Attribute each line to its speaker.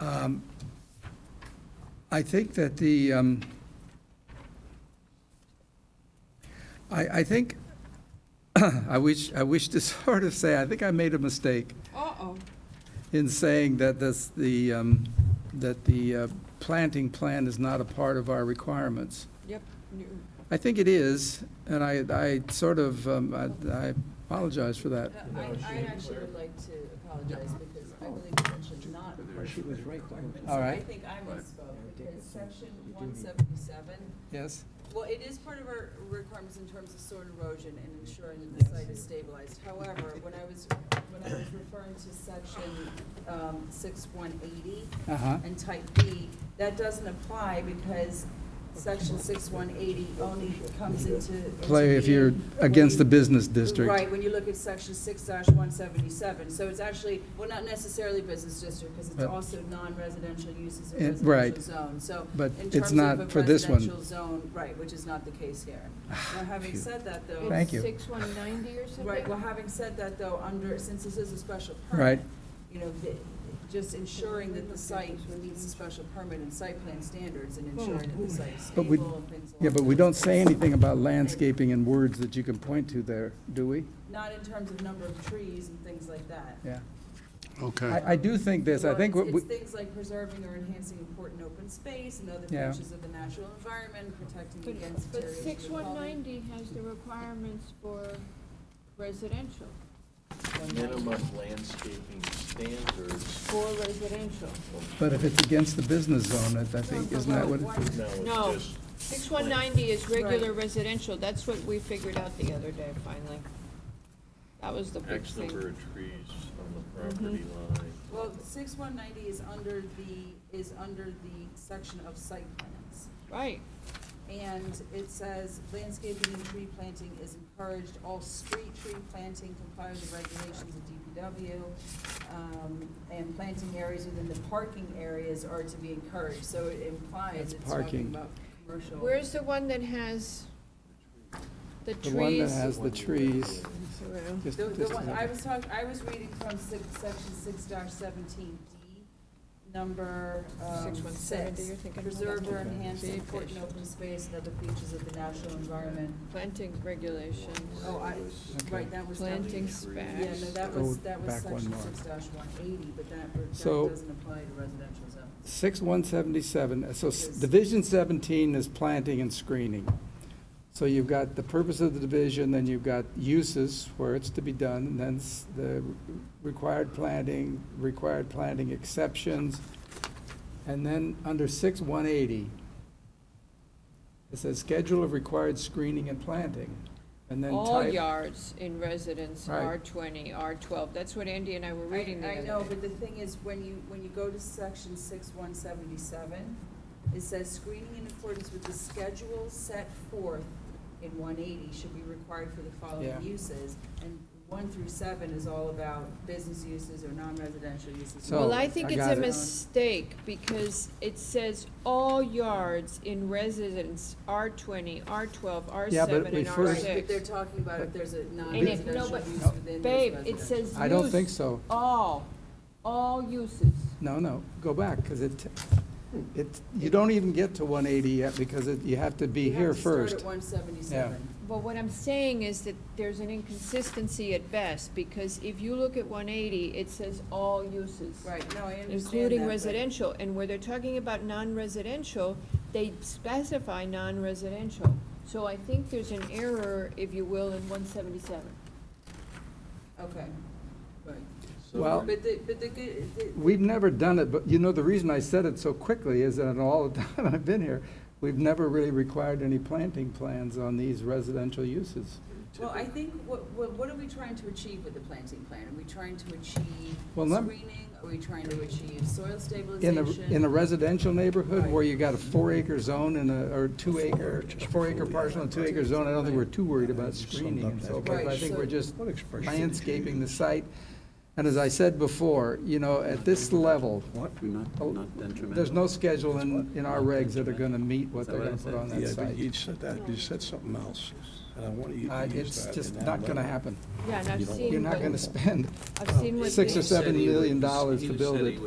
Speaker 1: Um, I think that the, um, I, I think, I wish, I wish to sort of say, I think I made a mistake
Speaker 2: Uh-oh.
Speaker 1: in saying that this, the, um, that the uh, planting plan is not a part of our requirements.
Speaker 2: Yep. you-
Speaker 1: I think it is, and I, I sort of, um, I I apologize for that.
Speaker 2: I, I actually would like to apologize because
Speaker 1: Oh.
Speaker 2: I believe you mentioned not.
Speaker 3: She was right. by the-
Speaker 1: All
Speaker 2: I
Speaker 1: right.
Speaker 2: think I misspoke because section one seventy-seven,
Speaker 1: Yes?
Speaker 2: well, it is part of our requirements in terms of soil erosion and ensuring that the site is stabilized. However, when I was, when I was referring to section, um, six one eighty,
Speaker 1: Uh-huh.
Speaker 2: and type B, that doesn't apply because section six one eighty only comes into. into
Speaker 1: Play if
Speaker 2: being
Speaker 1: you're against the
Speaker 2: when you-
Speaker 1: business district.
Speaker 2: Right, when you look at section six one seventy-seven, so it's actually, well, not necessarily business district, because it's
Speaker 1: But-
Speaker 2: also non-residential uses
Speaker 1: Eh,
Speaker 2: in
Speaker 1: right.
Speaker 2: residential zone, so.
Speaker 1: But
Speaker 2: in
Speaker 1: it's
Speaker 2: terms of
Speaker 1: not
Speaker 2: a
Speaker 1: for this one. Ah,
Speaker 2: Residential zone, right, which is not the case here. Now, having
Speaker 1: phew.
Speaker 2: said that, though.
Speaker 1: Thank you.
Speaker 4: Six one ninety or something?
Speaker 2: Right, well, having said that, though, under, since this is a special
Speaker 1: Right.
Speaker 2: permit, you know, the- just ensuring that the site meets the special permit and site plan standards and ensuring that the site is
Speaker 1: But we-
Speaker 2: stable and things along.
Speaker 1: Yeah, but we don't say anything about
Speaker 2: landscaping
Speaker 1: landscaping in words that you can point to there, do we?
Speaker 2: Not in terms of number of trees and things like that.
Speaker 1: Yeah.
Speaker 5: Okay,
Speaker 1: I, I do think this, I
Speaker 2: Well,
Speaker 1: think,
Speaker 2: it's-
Speaker 1: what we-
Speaker 2: It's things like preserving or enhancing important open space and other
Speaker 1: Yeah.
Speaker 2: features of the natural environment, protecting
Speaker 4: But-
Speaker 2: against
Speaker 4: But
Speaker 2: deterioration.
Speaker 4: six one
Speaker 2: quality.
Speaker 4: ninety has the requirements for residential,
Speaker 6: Oh, minimum landscaping standards.
Speaker 4: for residential.
Speaker 1: but if it's against the business zone, I I think,
Speaker 4: No,
Speaker 1: isn't that what?
Speaker 2: Why-
Speaker 1: it-
Speaker 6: Now it's
Speaker 4: No.
Speaker 6: just
Speaker 4: Six one ninety is regular
Speaker 2: Right.
Speaker 4: residential, that's what we figured out the other day finally. That was the big
Speaker 6: X number
Speaker 4: thing. Mm-hmm.
Speaker 6: of trees on the property line.
Speaker 2: Well, six one ninety is under the, is under the section of site plans.
Speaker 4: Right,
Speaker 2: And it says landscaping and tree planting is encouraged, all street tree planting complies with regulations of DPW. um, And planting areas within the parking areas are to be encouraged, so it implies
Speaker 1: That's
Speaker 2: it's talking
Speaker 1: parking.
Speaker 2: about commercial.
Speaker 4: where's the one that has the
Speaker 1: The one that
Speaker 4: trees?
Speaker 1: has the trees.
Speaker 4: Well,
Speaker 1: just-
Speaker 2: The, the
Speaker 1: just-
Speaker 2: one, I was talking, I was reading from six, section six seventeen D, number, um,
Speaker 4: 6170,
Speaker 2: six.
Speaker 4: you're thinking about
Speaker 2: Preserve or
Speaker 4: that.
Speaker 2: enhance
Speaker 4: Okay.
Speaker 2: important open space and other features of the natural environment.
Speaker 4: Planting regulations,
Speaker 2: Oh, I, right, that was. down
Speaker 4: planting
Speaker 2: here. Yeah, no,
Speaker 4: specs.
Speaker 2: that
Speaker 1: Go
Speaker 2: was, that was
Speaker 1: Oh, back one
Speaker 2: section
Speaker 1: more.
Speaker 2: six one eighty, but that, that
Speaker 1: So-
Speaker 2: doesn't apply to residential zones.
Speaker 1: Six one seventy-seven, so s- Division seventeen is planting and screening. So you've got the purpose of the division, then you've got uses where it's to be done, and then s- the required planting, required planting exceptions. And then under six one eighty, it says schedule of required screening and planting, and then
Speaker 2: Oh,
Speaker 4: all
Speaker 1: type.
Speaker 4: yards in residence,
Speaker 1: Right.
Speaker 4: R twenty, R twelve, that's what Andy and I were reading the
Speaker 2: I,
Speaker 4: other
Speaker 2: I
Speaker 4: day.
Speaker 2: know, but the thing is, when you, when you go to section six one seventy-seven, it says screening in accordance with the schedule set forth in one eighty should be required for the following
Speaker 1: Yeah.
Speaker 2: uses. And one through seven is all about business uses or non-residential uses.
Speaker 1: So-
Speaker 4: Well, I
Speaker 1: I
Speaker 4: think it's
Speaker 1: got
Speaker 4: a
Speaker 1: it.
Speaker 4: mistake, because it says all yards in residence, R twenty, R twelve, R
Speaker 1: Yeah, but
Speaker 4: seven,
Speaker 1: we
Speaker 4: and R
Speaker 1: first-
Speaker 2: Right, but they're
Speaker 4: six.
Speaker 2: talking about if there's a
Speaker 4: it-
Speaker 2: non-residential
Speaker 4: no,
Speaker 2: use
Speaker 4: but-
Speaker 2: within
Speaker 1: No.
Speaker 2: those residential.
Speaker 4: Babe, it says
Speaker 1: I don't think
Speaker 4: use.
Speaker 1: so.
Speaker 4: All, all uses.
Speaker 1: No, no, go back, because it, it, you don't even get to 180 yet, because it- you have to be
Speaker 2: You have
Speaker 1: here
Speaker 2: to start
Speaker 1: first.
Speaker 2: at one seventy-seven.
Speaker 4: But what I'm saying is that there's an inconsistency at best, because if you look at one eighty, it says all uses.
Speaker 2: Right, no, I understand that,
Speaker 4: Including
Speaker 2: but-
Speaker 4: residential, and where they're talking about non-residential, they specify non-residential. So I think there's an error, if you will, in one seventy-seven.
Speaker 2: Okay, right.
Speaker 6: So
Speaker 1: Oh, Well,
Speaker 2: But the, but the good, the,
Speaker 1: we've never done it, but you know, the reason I said it so quickly is that all the time I've been here, we've never really required any planting plans on these residential uses.
Speaker 2: Well, I think, what, what what are we trying to achieve with the planting plan? Are we trying to achieve
Speaker 1: Well, lem-
Speaker 2: screening? Are we trying to achieve soil
Speaker 1: In a,
Speaker 2: stabilization?
Speaker 1: in a residential neighborhood where
Speaker 2: Right.
Speaker 1: you got a four acre zone and a, or two acre, four acre parcel and two acre zone, I don't think we're too worried about screening and so forth. I
Speaker 2: Right,
Speaker 1: think
Speaker 2: so-
Speaker 1: we're just
Speaker 3: What expression?
Speaker 1: landscaping the site. And as I said before, you know, at this level,
Speaker 3: What?
Speaker 7: Not,
Speaker 1: Oh,
Speaker 7: not detrimental.
Speaker 1: There's no schedule in, in our regs that are gonna meet what
Speaker 7: Is that
Speaker 1: they're
Speaker 7: what I
Speaker 1: gonna put
Speaker 7: said?
Speaker 1: on that
Speaker 3: Yeah, but you
Speaker 1: site.
Speaker 3: said that, you said something else, and I want you
Speaker 1: Uh,
Speaker 3: to use
Speaker 1: It's
Speaker 3: that.
Speaker 1: just
Speaker 3: in that
Speaker 1: not gonna
Speaker 3: letter.
Speaker 1: happen.
Speaker 4: Yeah, and I've
Speaker 7: You don't-
Speaker 4: seen.
Speaker 1: You're not
Speaker 4: what-
Speaker 1: gonna spend
Speaker 6: oh.
Speaker 4: I've seen what
Speaker 1: six
Speaker 4: they-
Speaker 1: or seven million dollars to build it.